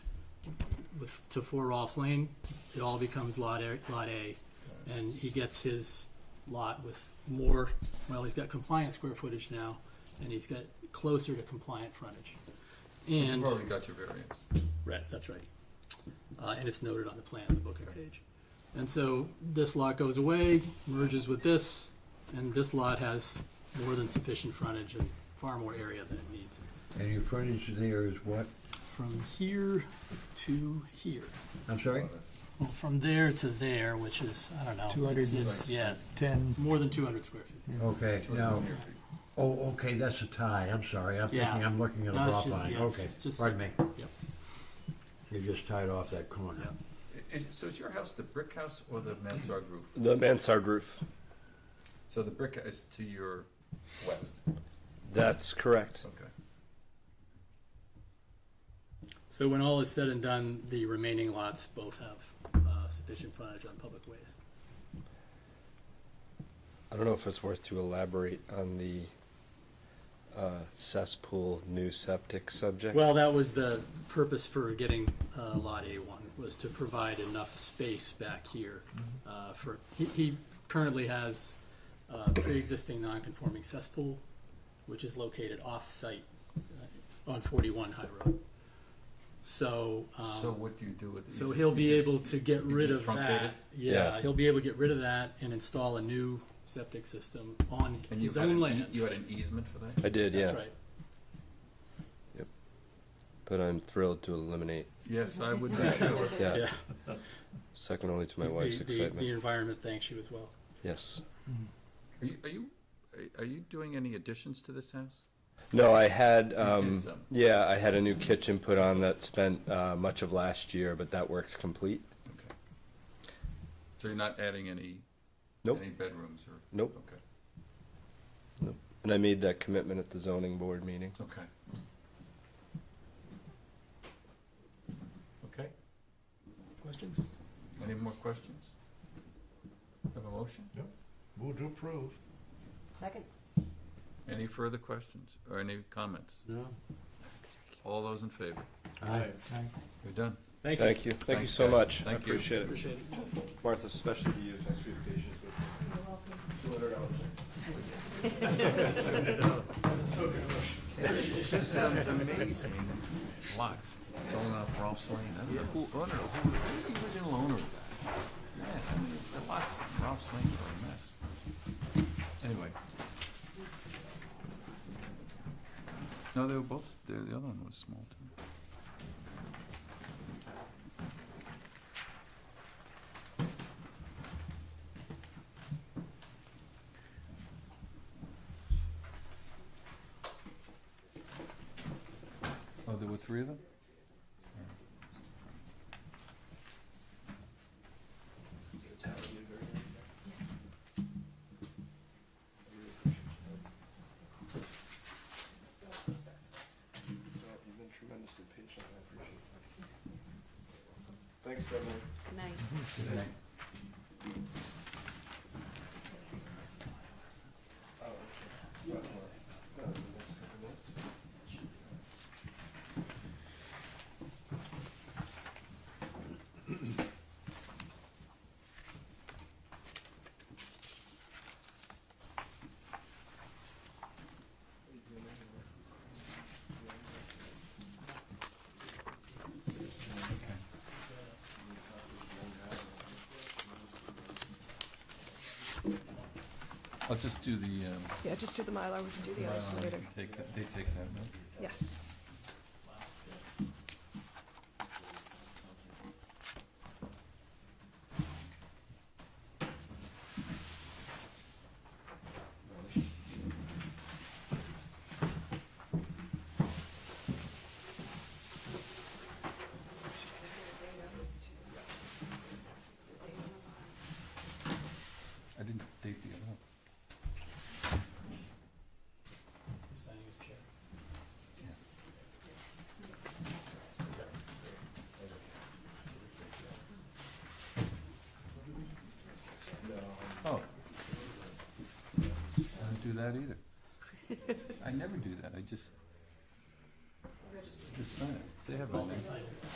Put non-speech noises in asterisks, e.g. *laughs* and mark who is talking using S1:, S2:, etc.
S1: with, to Four Rolfs Lane, it all becomes Lot A, Lot A. And he gets his lot with more, well, he's got compliant square footage now, and he's got closer to compliant frontage. And.
S2: You've already got your variance.
S1: Right, that's right. Uh, and it's noted on the plan, the booklet page. And so this lot goes away, merges with this, and this lot has more than sufficient frontage and far more area than it needs.
S3: And your frontage there is what?
S1: From here to here,
S3: I'm sorry?
S1: well, from there to there, which is, I don't know. it's-
S4: 200
S1: it's- Yeah,
S4: ten,
S1: more than two hundred square feet.
S3: Okay, now, oh, okay, that's a tie, I'm sorry, I'm thinking,
S1: Yeah.
S3: I'm looking at a
S1: No, it's
S3: drop
S1: just-
S3: line,
S1: yeah, it's
S3: okay,
S1: just- just-
S3: pardon me.
S1: yep.
S3: You just tied off that corner.
S2: I- is- so is your house the brick house or the mansard roof?
S5: The mansard roof.
S2: So the brick is to your west,
S5: That's correct.
S2: okay.
S1: So when all is said and done, the remaining lots both have uh, sufficient frontage on public ways.
S5: I don't know if it's worth to elaborate on the uh, cesspool new septic subject.
S1: Well, that was the purpose for getting uh, Lot A1, was to provide enough space back here uh, for, he- he currently has uh, pre-existing non-conforming cesspool, which is located off-site uh, on 41 High Road. So, um,
S2: So what do you do with it? You
S1: so
S2: just-
S1: he'll
S2: you
S1: be
S2: just-
S1: able to get
S2: you
S1: rid
S2: just
S1: of
S2: truncate
S1: that.
S2: it?
S1: Yeah,
S5: Yeah.
S1: he'll be able to get rid of that and install a new septic system on
S2: And you
S1: his
S2: had,
S1: own
S2: an ea-
S1: land.
S2: you had an easement for that?
S5: I did, yeah.
S1: That's right.
S5: But I'm thrilled to eliminate,
S2: Yes, I *laughs* would be sure.
S5: yeah,
S1: Yeah.
S5: second only to my
S1: The-
S5: wife's
S1: the-
S5: excitement.
S1: The environment thanks you as well.
S5: Yes.
S2: Are you, are you, are- are you doing any additions to this house?
S5: No, I had,
S2: did
S5: um,
S2: some.
S5: yeah, I had a new kitchen put on that spent uh, much of last year, but that work's complete.
S2: Okay. So you're not adding any?
S5: Nope.
S2: Any bedrooms or?
S5: Nope.
S2: Okay,
S5: And I made that commitment at the zoning board meeting.
S2: okay. Okay,
S1: Questions?
S2: any more questions? Have a motion?
S4: Move to approve.
S6: Second.
S2: Any further questions or any comments?
S3: No?
S2: All those in favor?
S3: Aye.
S2: You're done.
S1: Thank you.
S5: Thank you. Thank you
S2: Thanks,
S5: so
S2: guys.
S5: much. I
S2: Thank you.
S5: appreciate it.
S1: Appreciate it.
S5: Martha, especially to you. Thanks for your patience with
S2: Just some amazing lots going up Rolfs Lane. I don't know who owner, who was, who was the original owner of that? Man, I mean, the lots in Rolfs Lane are a mess. Anyway, no, they were both, the, the other one was small too. Oh, there were three of them?
S5: You've been tremendously patient. I appreciate it. Thanks, Stephanie.
S6: Good night.
S2: I'll just do the, um.
S6: Yeah, just do the Mylar, we can do the others
S2: Mylar,
S6: later.
S2: Take, that- they take that, no?
S6: Yes.
S2: I didn't date the other one. Oh. I don't do that either. I never do that, I just. Just sign it, they have all that.